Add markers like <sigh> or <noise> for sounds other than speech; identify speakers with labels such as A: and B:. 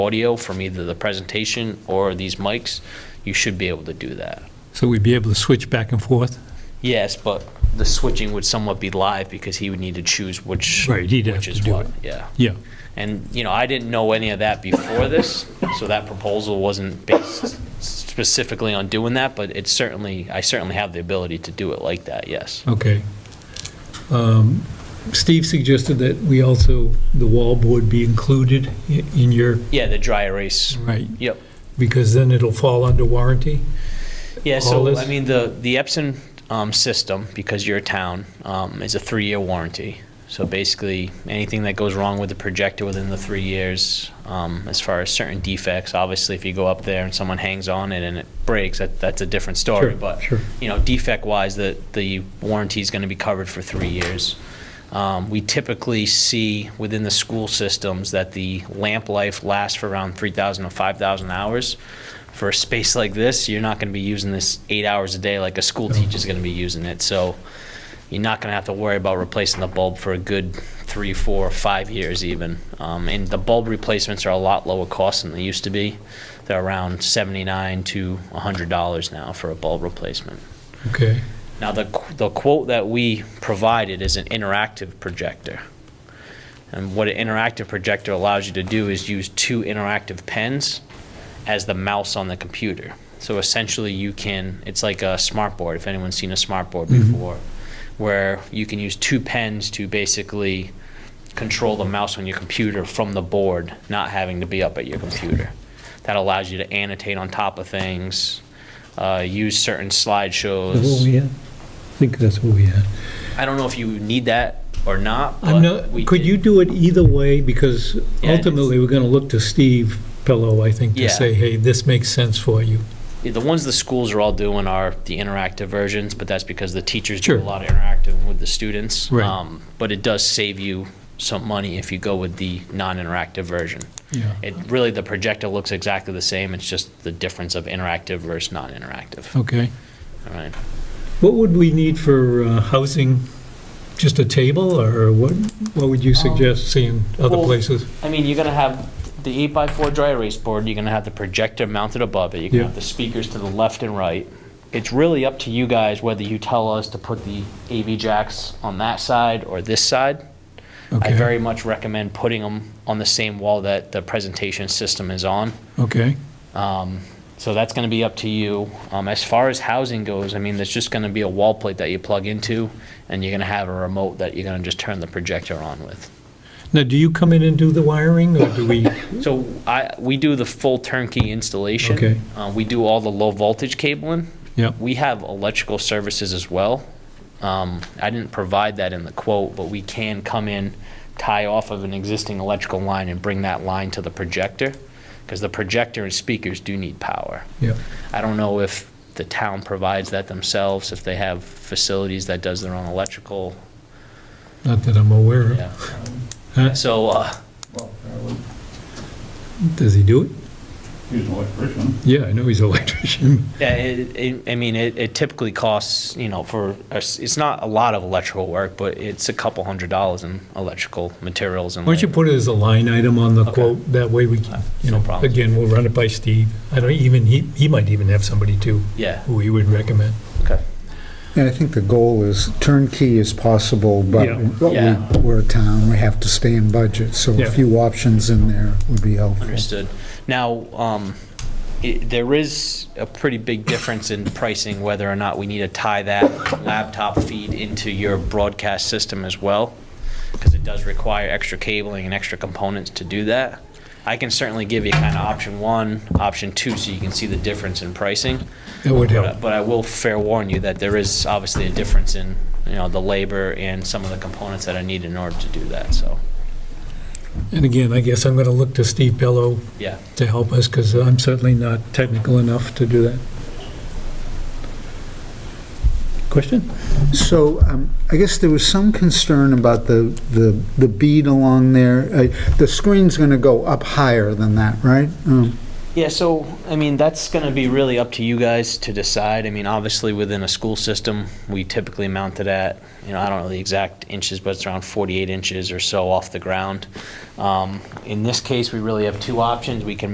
A: audio from either the presentation or these mics, you should be able to do that.
B: So we'd be able to switch back and forth?
A: Yes, but the switching would somewhat be live because he would need to choose which,
B: Right, he'd have
A: which
B: to
A: is
B: do
A: what,
B: it.
A: yeah.
B: Yeah.
A: And, you know, I didn't know any of that before this, so that proposal wasn't based specifically on doing that, but it certainly, I certainly have the ability to do it like that, yes.
B: Okay. Um, Steve suggested that we also, the wall board be included i- in your,
A: Yeah, the dry erase,
B: right,
A: yep.
B: because then it'll fall under warranty?
A: Yeah,
B: all
A: so,
B: this?
A: I mean, the, the Epson um, system, because you're a town, um, is a three-year warranty. So basically, anything that goes wrong with the projector within the three years, um, as far as certain defects, obviously, if you go up there and someone hangs on it and it breaks, that, that's a different story.
B: Sure,
A: But,
B: sure.
A: you know, defect-wise, the, the warranty's gonna be covered for three years. Um, We typically see within the school systems that the lamp life lasts for around 3,000 to 5,000 hours. For a space like this, you're not going to be using this eight hours a day like a school teacher's going to be using it. So you're not going to have to worry about replacing the bulb for a good three, four, five years even. Um, And the bulb replacements are a lot lower cost than they used to be. They're around 79 to $100 now for a bulb replacement.
B: Okay,
A: Now, the, qu- the quote that we provided is an interactive projector. And what an interactive projector allows you to do is use two interactive pens as the mouse on the computer. So essentially, you can, it's like a smart board, if anyone's seen a smart board before, where you can use two pens to basically control the mouse on your computer from the board, not having to be up at your computer. That allows you to annotate on top of things, uh, use certain slideshows.
B: that's what we had? I think that's what we had.
A: I don't know if you need that or not.
B: I'm
A: but we
B: not, could
A: did-
B: you do it either way? Because
A: Yeah, it's-
B: ultimately, we're going to look to Steve Pello, I think,
A: Yeah.
B: to say, hey, this makes sense for you.
A: The ones the schools are all doing are the interactive versions, but that's because the teachers do a
B: Sure.
A: lot of interactive with the students.
B: Right.
A: Um, But it does save you some money if you go with the non-interactive version.
B: Yeah.
A: It, really, the projector looks exactly the same, it's just the difference of interactive versus non-interactive,
B: Okay.
A: all right?
B: What would we need for uh, housing? Just a table, or what, what would you suggest seeing other
A: Um, well-
B: places?
A: I mean, you're gonna have the eight by four dry erase board, you're gonna have the projector mounted above it, you're gonna
B: Yeah.
A: have the speakers to the left and right. It's really up to you guys whether you tell us to put the AV jacks on that side or this side. I
B: Okay.
A: very much recommend putting them on the same wall that the presentation system is on. Um,
B: Okay,
A: So that's going to be up to you. Um, as far as housing goes, I mean, there's just going to be a wall plate that you plug into, and you're going to have a remote that you're going to just turn the projector on with.
B: now, do you come in and do the wiring, or
A: <laughs>
B: do we,
A: So I, we do the full turnkey installation.
B: Okay.
A: Uh, we do all the low voltage cabling.
B: yeah,
A: We have electrical services as well. Um, I didn't provide that in the quote, but we can come in, tie off of an existing electrical line and bring that line to the projector. Because the projector and speakers do need power.
B: yeah,
A: I don't know if the town provides that themselves, if they have facilities that does their own electrical.
B: not that I'm aware of.
A: Yeah.
B: Huh?
A: So, uh,
C: Well, I would
B: Does he do it?
C: use an electrician.
B: Yeah, I know he's an <laughs> electrician.
A: Yeah, it, it, I mean, it, it typically costs, you know, for, us- it's not a lot of electrical work, but it's a couple hundred dollars in electrical materials and.
B: Why don't you
A: labor.
B: put it as a line item on the
A: Okay. Uh,
B: quote, that way we can, you
A: No
B: know,
A: problem.
B: again, we'll run it by Steve. I don't even, he, he might even have somebody too,
A: Yeah,
B: who he would recommend.
A: okay.
D: And I think the goal is turnkey as possible, but
B: Yeah.
D: but
A: Yeah.
D: we- we're a town, we have to stay in budget, so
B: Yeah.
D: a few options in there would be helpful.
A: Understood. Now, um, it- there is a pretty big difference in pricing, whether or not we need to tie that laptop feed into your broadcast system as well, because it does require extra cabling and extra components to do that. I can certainly give you kind of option one, option two, so you can see the difference in pricing.
B: That would
A: But I-
B: help.
A: but I will fair warn you that there is obviously a difference in, you know, the labor and some of the components that are needed in order to do that, so,
B: And again, I guess I'm going to look to Steve Bello
A: yeah.
B: to help us, because I'm certainly not technical enough to do that. Question?
D: So um, I guess there was some concern about the, the the bead along there. Uh, The screen's going to go up higher than that, right? Um,
A: Yeah, so, I mean, that's going to be really up to you guys to decide. I mean, obviously, within a school system, we typically mount it at, you know, I don't know the exact inches, but it's around 48 inches or so off the ground. Um, In this case, we really have two options. We can